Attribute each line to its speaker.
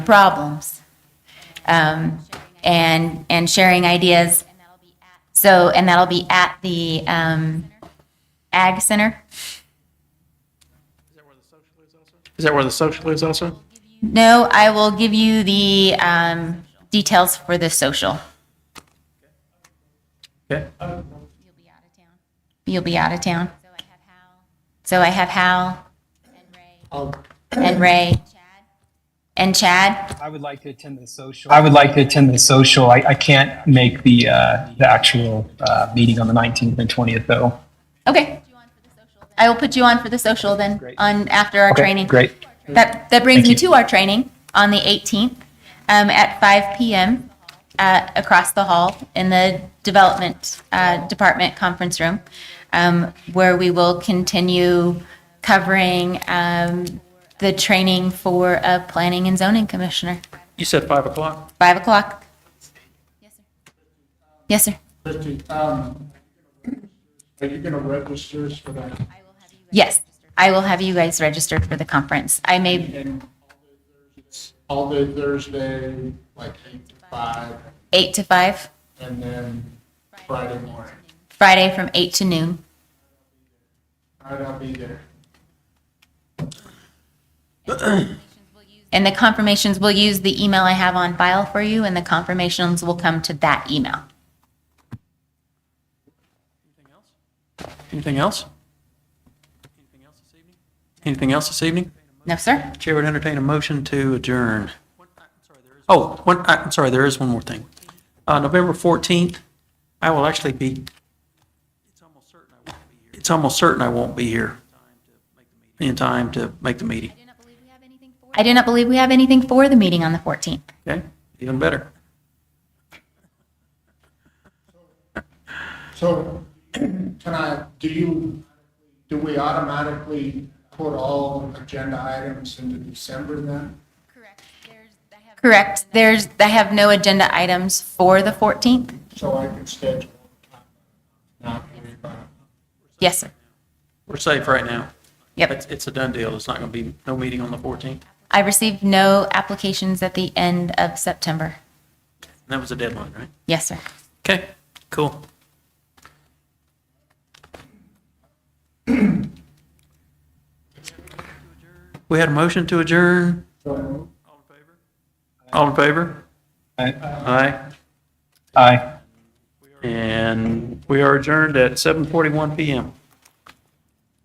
Speaker 1: problems um, and and sharing ideas. So and that'll be at the um, Ag Center.
Speaker 2: Is that where the social is also?
Speaker 1: No, I will give you the um, details for the social.
Speaker 2: Okay.
Speaker 1: You'll be out of town. So I have Hal
Speaker 3: Oh.
Speaker 4: I'll,
Speaker 1: and Ray and Chad.
Speaker 3: I would like to attend the social. I would like to attend the social. I, I can't make the, uh, the actual, uh, meeting on the 19th and 20th though.
Speaker 1: Okay. I will put you on for the social then on after our
Speaker 3: Okay,
Speaker 1: training.
Speaker 3: Great.
Speaker 1: That, that brings
Speaker 3: Thank
Speaker 1: me
Speaker 3: you.
Speaker 1: to our training on the 18th um, at 5 PM uh, across the hall in the Development uh, Department Conference Room, um, where we will continue covering um, the training for a Planning and Zoning Commissioner.
Speaker 2: You said five o'clock.
Speaker 1: 5 o'clock? Yes, sir.
Speaker 4: Christie, um, are you gonna register us for that?
Speaker 1: Yes. I will have you guys registered for the conference. I may,
Speaker 4: And all day Thursday, like eight to five,
Speaker 1: 8 to 5,
Speaker 4: and then Friday morning.
Speaker 1: Friday from 8 to noon.
Speaker 4: All right, I'll be there.
Speaker 1: And the confirmations, we'll use the email I have on file for you, and the confirmations will come to that email.
Speaker 2: Anything else? Anything else this evening? Anything else this evening?
Speaker 1: No, sir?
Speaker 2: Chair would entertain a motion to adjourn. Oh, one, I- I'm sorry, there is one more thing. Uh, November 14th, I will actually be, it's almost certain I won't be here in time to make the meeting,
Speaker 1: I do not believe we have anything for the meeting on the 14th.
Speaker 2: okay? Even better.
Speaker 4: So can I, do you, do we automatically put all agenda items into December then?
Speaker 1: Correct. There's, I have no agenda items for the 14th.
Speaker 4: So I can schedule. Not everybody.
Speaker 1: Yes, sir.
Speaker 2: We're safe right now.
Speaker 1: Yep.
Speaker 2: It's, it's a done deal. It's not going to be, no meeting on the 14th. And
Speaker 1: I received no applications at the end of September.
Speaker 2: that was a deadline, right?
Speaker 1: Yes, sir.
Speaker 2: Okay, cool. We had a motion to adjourn.
Speaker 4: So
Speaker 2: All in favor?
Speaker 3: Aye.
Speaker 2: Aye.
Speaker 3: Aye.
Speaker 2: And we are adjourned at 7:41 PM.